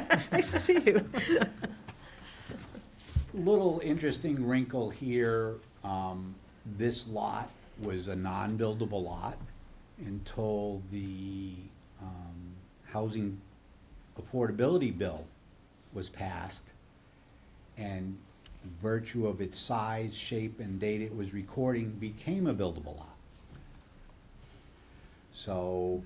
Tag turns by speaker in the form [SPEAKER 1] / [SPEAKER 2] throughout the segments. [SPEAKER 1] nice to see you.
[SPEAKER 2] Little interesting wrinkle here, um, this lot was a non-buildable lot until the, um, housing affordability bill was passed. And virtue of its size, shape, and date it was recording became a buildable lot. So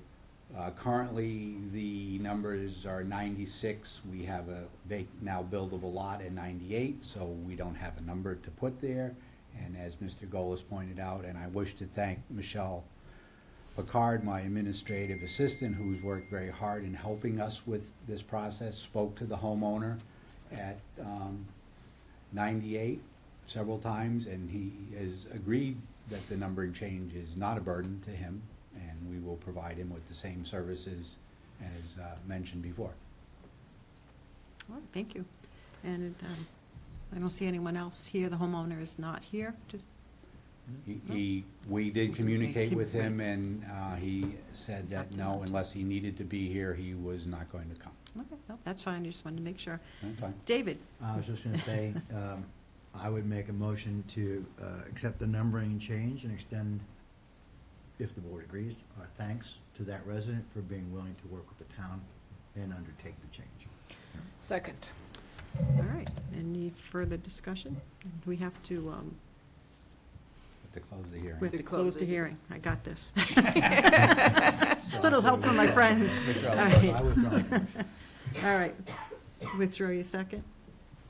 [SPEAKER 2] uh, currently, the numbers are 96. We have a vac- now buildable lot at 98, so we don't have a number to put there. And as Mr. Golis pointed out, and I wish to thank Michelle Picard, my administrative assistant, who's worked very hard in helping us with this process, spoke to the homeowner at um, 98 several times, and he has agreed that the numbering change is not a burden to him, and we will provide him with the same services as uh, mentioned before.
[SPEAKER 1] Well, Thank you. And um, I don't see anyone else here. The homeowner is not here. Do-
[SPEAKER 2] He- He, we did communicate with him, and uh, he said that no, unless he needed to be here, he was not going to come.
[SPEAKER 1] okay, no, That's fine, I just wanted to make sure.
[SPEAKER 2] That's fine.
[SPEAKER 1] David,
[SPEAKER 3] I was just gonna say, um, I would make a motion to, uh, accept the numbering change and extend, if the board agrees, our thanks to that resident for being willing to work with the town and undertake the change.
[SPEAKER 4] Second.
[SPEAKER 1] all right, any further discussion? We have to, um,
[SPEAKER 2] Have To close the
[SPEAKER 1] we
[SPEAKER 2] hearing.
[SPEAKER 1] have to
[SPEAKER 4] To
[SPEAKER 1] close
[SPEAKER 4] close
[SPEAKER 1] the
[SPEAKER 4] it.
[SPEAKER 1] hearing. I got this. Little help from my friends.
[SPEAKER 2] Withdraw the
[SPEAKER 1] All
[SPEAKER 2] motion.
[SPEAKER 3] I
[SPEAKER 1] right,
[SPEAKER 3] withdraw my motion.
[SPEAKER 1] all right. Withdraw your second?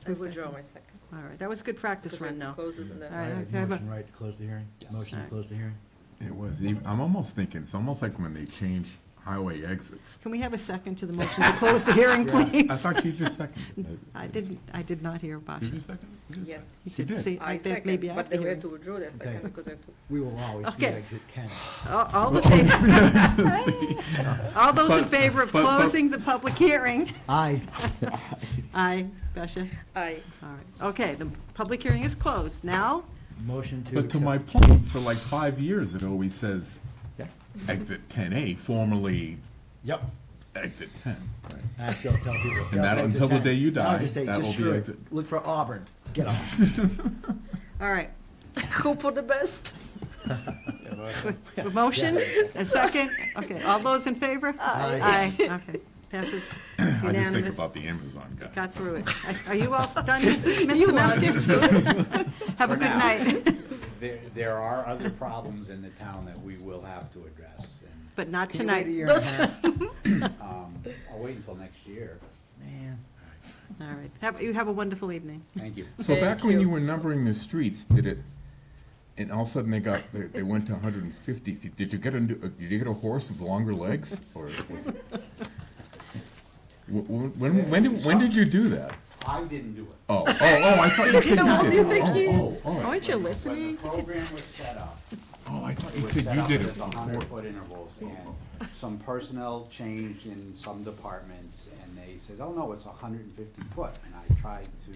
[SPEAKER 4] I withdraw my second.
[SPEAKER 1] All right, that was good practice run, though.
[SPEAKER 4] Closes and
[SPEAKER 1] All
[SPEAKER 3] Right,
[SPEAKER 1] right,
[SPEAKER 4] then.
[SPEAKER 1] okay, but-
[SPEAKER 3] Motion right to close the hearing?
[SPEAKER 2] Yes.
[SPEAKER 3] Motion to
[SPEAKER 1] Alright.
[SPEAKER 3] close the hearing?
[SPEAKER 5] It was, even- I'm almost thinking, it's almost like when they change highway exits.
[SPEAKER 1] Can we have a second to the motion to close the hearing,
[SPEAKER 5] I
[SPEAKER 1] please?
[SPEAKER 5] thought you just seconded it.
[SPEAKER 1] I didn't, I did not hear
[SPEAKER 5] Did you
[SPEAKER 1] Basha.
[SPEAKER 5] second? it? You just
[SPEAKER 4] Yes.
[SPEAKER 5] seconded
[SPEAKER 1] He
[SPEAKER 5] it. She did.
[SPEAKER 1] See,
[SPEAKER 4] I
[SPEAKER 1] I think maybe
[SPEAKER 4] second, but
[SPEAKER 1] after
[SPEAKER 4] then we have
[SPEAKER 1] hearing.
[SPEAKER 4] to withdraw that second
[SPEAKER 3] Okay.
[SPEAKER 4] because I have to.
[SPEAKER 3] We will always be
[SPEAKER 1] Okay.
[SPEAKER 3] exit ten.
[SPEAKER 1] All all the fa- all those in
[SPEAKER 5] But-
[SPEAKER 1] favor of
[SPEAKER 5] but- but-
[SPEAKER 1] closing the public hearing?
[SPEAKER 3] Aye.
[SPEAKER 1] Aye, Basha?
[SPEAKER 4] I,
[SPEAKER 1] All right, okay, the public hearing is closed. Now,
[SPEAKER 3] Motion to
[SPEAKER 5] But to
[SPEAKER 3] accept.
[SPEAKER 5] my point, for like five years, it always says exit ten A, formerly
[SPEAKER 3] Yep.
[SPEAKER 5] exit ten. right?
[SPEAKER 3] I still tell people.
[SPEAKER 5] And that-
[SPEAKER 3] "Yep, exit
[SPEAKER 5] until the
[SPEAKER 3] 10."
[SPEAKER 5] day you
[SPEAKER 3] Now I
[SPEAKER 5] die,
[SPEAKER 3] just say,
[SPEAKER 5] that
[SPEAKER 3] just
[SPEAKER 5] will be
[SPEAKER 3] screw it.
[SPEAKER 5] exit.
[SPEAKER 3] Look for Auburn. Get off.
[SPEAKER 1] all right,
[SPEAKER 4] hope for the best.
[SPEAKER 1] a motion, a second, okay, all those in favor?
[SPEAKER 3] Aye.
[SPEAKER 1] Aye, okay, passes
[SPEAKER 5] I just think
[SPEAKER 1] unanimous.
[SPEAKER 5] about the Amazon guy.
[SPEAKER 1] Got through it. Are you all done, Mr. Meskis? Have a
[SPEAKER 2] For
[SPEAKER 1] good
[SPEAKER 2] now.
[SPEAKER 1] night,
[SPEAKER 2] There, there are other problems in the town that we will have to address, and um,
[SPEAKER 1] but not
[SPEAKER 3] Can you wait
[SPEAKER 1] tonight.
[SPEAKER 3] a year and a half?
[SPEAKER 2] I'll wait until next year.
[SPEAKER 3] Man.
[SPEAKER 1] All right, Have- you have a wonderful evening.
[SPEAKER 2] Thank you.
[SPEAKER 5] So back
[SPEAKER 4] Thank
[SPEAKER 5] when
[SPEAKER 4] you.
[SPEAKER 5] you were numbering the streets, did it, and all of a sudden they got, they, they went to hundred and fifty feet, did you get a, new- uh, did you get a horse with longer legs, or? was it- Wh- wh- When, when, did- when did you do that?
[SPEAKER 2] I didn't do it.
[SPEAKER 5] Oh, oh, oh, I thought you said
[SPEAKER 4] How
[SPEAKER 5] you
[SPEAKER 4] do you
[SPEAKER 5] did.
[SPEAKER 4] think he
[SPEAKER 5] Oh, oh, oh,
[SPEAKER 1] Aren't you
[SPEAKER 2] When
[SPEAKER 1] listening?
[SPEAKER 2] the program was set up,
[SPEAKER 5] oh, I thought
[SPEAKER 2] it
[SPEAKER 5] you
[SPEAKER 2] was
[SPEAKER 5] said
[SPEAKER 2] set
[SPEAKER 5] you
[SPEAKER 2] up
[SPEAKER 5] did it
[SPEAKER 2] with a
[SPEAKER 5] before.
[SPEAKER 2] hundred foot intervals, and some personnel changed in some departments, and they said, oh, no, it's hundred and fifty foot, and I tried to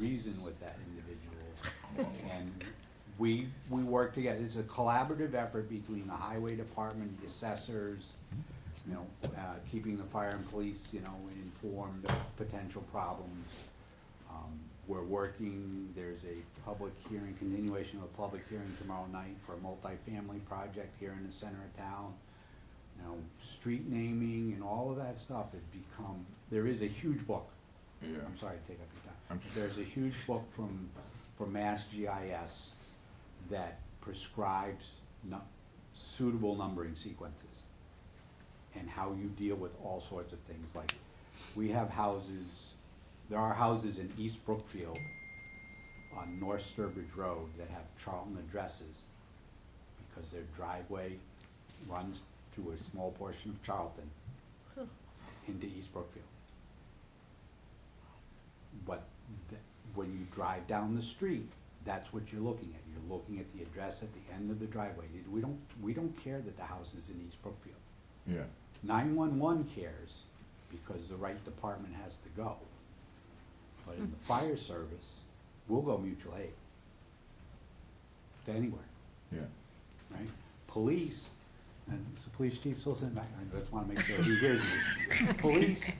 [SPEAKER 2] reason with that individual. And we, we worked together, it's a collaborative effort between the highway department, the assessors, you know, uh, keeping the fire and police, you know, informed of potential problems. Um, We're working, there's a public hearing, continuation of a public hearing tomorrow night for a multifamily project here in the center of town. You know, street naming and all of that stuff has become, there is a huge book.
[SPEAKER 5] Yeah.
[SPEAKER 2] I'm sorry to take up your time.
[SPEAKER 5] Okay.
[SPEAKER 2] There's a huge book from, from Mass GIS that prescribes nu- suitable numbering sequences and how you deal with all sorts of things, like, we have houses, there are houses in East Brookfield on North Sturbridge Road that have Charlton addresses, because their driveway runs through a small portion of Charlton into East Brookfield. But th- when you drive down the street, that's what you're looking at, you're looking at the address at the end of the driveway, we don't, we don't care that the house is in East Brookfield.
[SPEAKER 5] Yeah,
[SPEAKER 2] 911 cares because the right department has to go. But in the fire service, we'll go mutual aid to anywhere,
[SPEAKER 5] yeah.
[SPEAKER 2] right? Police, and is the police chief still sitting back? I just want to make sure he hears you. Police,